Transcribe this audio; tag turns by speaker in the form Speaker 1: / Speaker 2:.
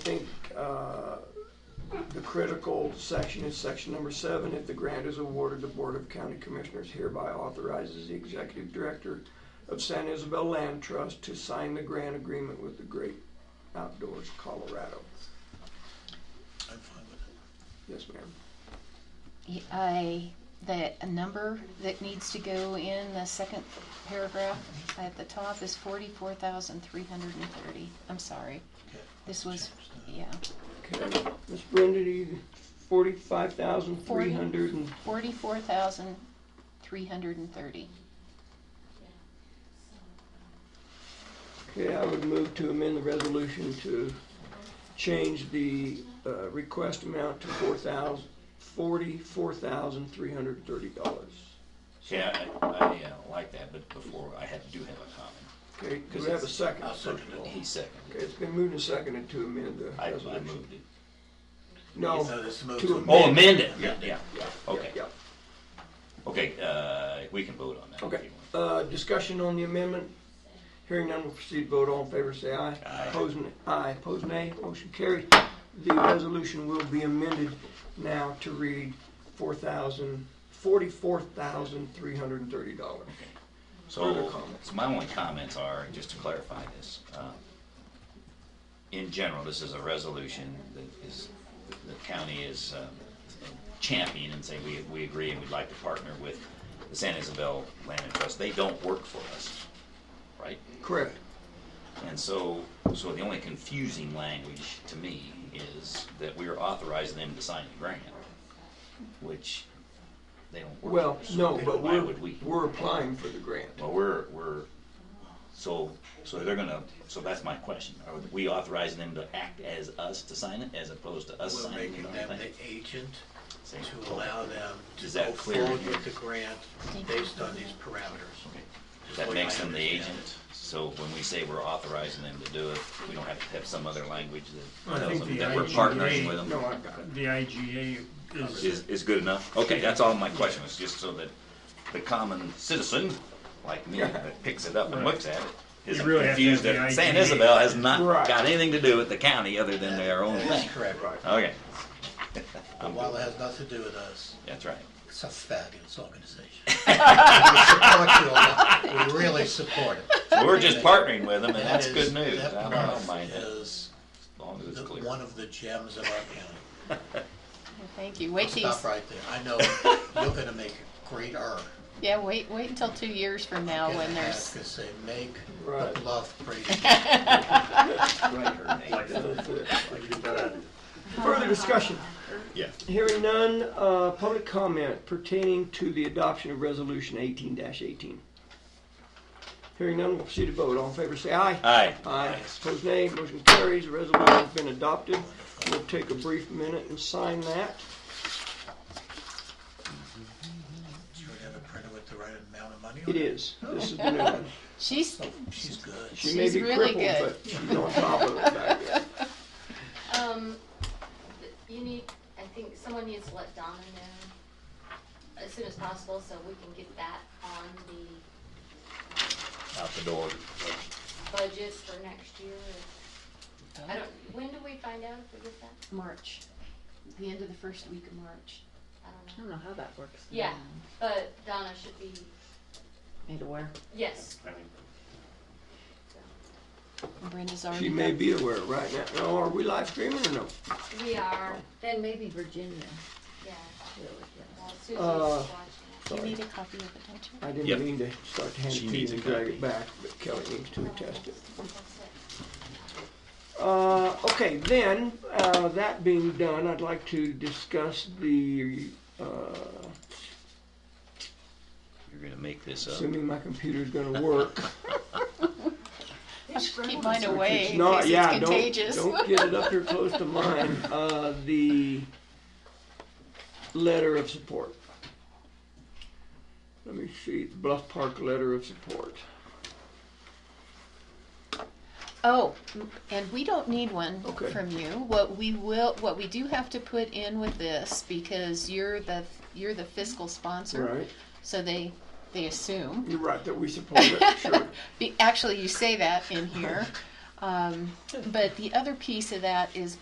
Speaker 1: think uh, the critical section is section number seven. If the grant is awarded, the Board of County Commissioners hereby authorizes the Executive Director of San Isabel Land Trust to sign the grant agreement with the Great Outdoors Colorado.
Speaker 2: I'm fine with it.
Speaker 1: Yes, ma'am.
Speaker 3: I, the number that needs to go in the second paragraph at the top is forty-four thousand three hundred and thirty. I'm sorry,
Speaker 2: Okay.
Speaker 3: this was,
Speaker 2: Change that.
Speaker 3: yeah,
Speaker 1: Okay, Ms. Brenda, do you, forty-five thousand three hundred and,
Speaker 3: forty-four thousand three hundred and thirty.
Speaker 1: okay, I would move to amend the resolution to change the, uh, request amount to four thousand, forty-four thousand three hundred and thirty dollars.
Speaker 4: Yeah, I, I uh, like that, but before, I had, do have a
Speaker 1: Okay,
Speaker 4: comment.
Speaker 1: do we have a second? first of all?
Speaker 4: He seconded
Speaker 1: Okay, it's been moved and seconded to amend the
Speaker 4: I, I
Speaker 1: resolution.
Speaker 4: moved it.
Speaker 1: No,
Speaker 2: So this moves
Speaker 1: to
Speaker 2: on.
Speaker 1: amend.
Speaker 4: Oh, amend it,
Speaker 2: Yeah.
Speaker 4: yeah,
Speaker 1: Yeah,
Speaker 4: okay,
Speaker 1: yeah,
Speaker 4: okay, uh, we can vote on that. if
Speaker 1: okay.
Speaker 4: you want.
Speaker 1: Uh, discussion on the amendment. Hearing none, we'll proceed to vote. All in favor, say aye.
Speaker 4: Aye.
Speaker 1: Opposed, n- aye. Opposed, nay. Motion carried. The resolution will be amended now to read four thousand, forty-four thousand, three hundred and thirty dollars. further
Speaker 4: So,
Speaker 1: comments?
Speaker 4: so my only comments are, just to clarify this, uh, in general, this is a resolution that is, the county is um, championing and saying, we, we agree and we'd like to partner with the San Isabel Land and Trust. They don't work for us, right?
Speaker 1: Correct.
Speaker 4: And so, so the only confusing language to me is that we are authorizing them to sign the grant, which they don't work.
Speaker 1: Well,
Speaker 4: for, so
Speaker 1: no, but
Speaker 4: Why
Speaker 1: we're,
Speaker 4: would we?
Speaker 1: we're applying for the grant.
Speaker 4: Well, we're, we're, so, so they're gonna, so that's my question. Are we authorizing them to act as us to sign it as opposed to us
Speaker 2: We're
Speaker 4: signing
Speaker 2: making
Speaker 4: it on
Speaker 2: them
Speaker 4: the
Speaker 2: the
Speaker 4: thing?
Speaker 2: agent
Speaker 4: See?
Speaker 2: to allow them to
Speaker 4: Is that
Speaker 2: go
Speaker 4: clear?
Speaker 2: forward with the grant based on these parameters.
Speaker 4: Okay.
Speaker 2: Just
Speaker 4: That
Speaker 2: like
Speaker 4: makes
Speaker 2: I
Speaker 4: them the
Speaker 2: understand
Speaker 4: agent. So when we say we're authorizing them to do it, we don't have to have some other language that
Speaker 5: I
Speaker 4: tells
Speaker 5: think
Speaker 4: them
Speaker 5: the
Speaker 4: that we're
Speaker 5: IGA
Speaker 4: partnering with them.
Speaker 1: No, I've got it.
Speaker 5: The IGA is,
Speaker 4: is, is good enough. Okay, that's all my question, was just so that the common citizen, like me, that picks it up and looks at it, isn't
Speaker 5: really have to
Speaker 4: confused
Speaker 5: have
Speaker 4: that
Speaker 5: the
Speaker 4: San
Speaker 5: IGA.
Speaker 4: Isabel has not
Speaker 1: Right.
Speaker 4: got anything to do with the county other than their own
Speaker 2: it. That
Speaker 4: thing.
Speaker 2: is correct.
Speaker 1: Right.
Speaker 4: Okay,
Speaker 2: But While it has nothing to do with us,
Speaker 4: that's right.
Speaker 2: it's a fabulous organization. We support you a lot. We really support it.
Speaker 4: So we're just partnering with them, and
Speaker 2: That
Speaker 4: that's
Speaker 2: is-
Speaker 4: good news.
Speaker 2: That
Speaker 4: I don't, I
Speaker 2: part
Speaker 4: don't mind that, as
Speaker 2: is
Speaker 4: long as it's
Speaker 2: the-
Speaker 4: clear.
Speaker 2: one of the gems of our county.
Speaker 3: Thank you, wait till, you
Speaker 2: Stop
Speaker 3: s-
Speaker 2: right there. I know you're gonna make a great error.
Speaker 3: yeah, wait, wait until two years from now when there's,
Speaker 2: Because they make
Speaker 1: Right.
Speaker 2: the bluff pretty.
Speaker 1: That's it. Further discussion.
Speaker 4: Yeah.
Speaker 1: Hearing none, uh, public comment pertaining to the adoption of resolution eighteen eighteen. Hearing none, we'll proceed to vote. All in favor, say aye.
Speaker 4: Aye.
Speaker 1: Aye. Opposed, nay. Motion carries. Resolution's been adopted. We'll take a brief minute and sign that.
Speaker 2: Sure you have a printer with the right amount of money on
Speaker 1: It
Speaker 2: it? Oh,
Speaker 1: is. This is the new one.
Speaker 3: she's,
Speaker 2: She's good.
Speaker 1: She may
Speaker 3: She's
Speaker 1: be
Speaker 3: really
Speaker 1: crippled, but
Speaker 3: good.
Speaker 1: she's on top of it back there.
Speaker 6: Um, you need, I think someone needs to let Donna know as soon as possible so we can get that on the
Speaker 4: Out the door.
Speaker 6: budget for next year. I don't, when do we find out if we get that?
Speaker 3: March, the end of the first week of March.
Speaker 6: I don't know.
Speaker 7: I don't know how that works.
Speaker 6: Yeah, but Donna should be,
Speaker 7: Made aware.
Speaker 6: yes,
Speaker 3: Brenda's already.
Speaker 1: She may
Speaker 3: got-
Speaker 1: be aware right now. Oh, Are we live streaming or no?
Speaker 6: we are,
Speaker 7: Then maybe Virginia
Speaker 6: yeah.
Speaker 7: will, yes.
Speaker 6: Well, Susie's
Speaker 1: Uh,
Speaker 6: watching.
Speaker 3: Do you
Speaker 1: Sorry.
Speaker 3: need a copy of it, don't you?
Speaker 1: I
Speaker 4: Yep.
Speaker 1: didn't mean to start to hand it
Speaker 4: She
Speaker 1: to you
Speaker 4: needs
Speaker 1: and
Speaker 4: a
Speaker 1: drag
Speaker 4: copy.
Speaker 1: it back, but Kelly needs to attest it.
Speaker 6: That's it.
Speaker 1: Uh, okay, then, uh, that being done, I'd like to discuss the, uh,
Speaker 4: You're gonna make this up.
Speaker 1: assuming my computer's gonna work.
Speaker 3: I should keep mine away
Speaker 1: It's
Speaker 3: in
Speaker 1: not-
Speaker 3: case
Speaker 1: yeah,
Speaker 3: it's
Speaker 1: don't-
Speaker 3: contagious.
Speaker 1: Don't get it up here close to mine. Uh, the letter of support. Let me see, the Bluff Park letter of support.
Speaker 3: Oh, and we don't need one
Speaker 1: Okay.
Speaker 3: from you. What we will, what we do have to put in with this, because you're the, you're the fiscal sponsor.
Speaker 1: Right,
Speaker 3: So they, they assume.
Speaker 1: you're right that we support it, sure.
Speaker 3: Be- Actually, you say that in here. Um, but the other piece of that is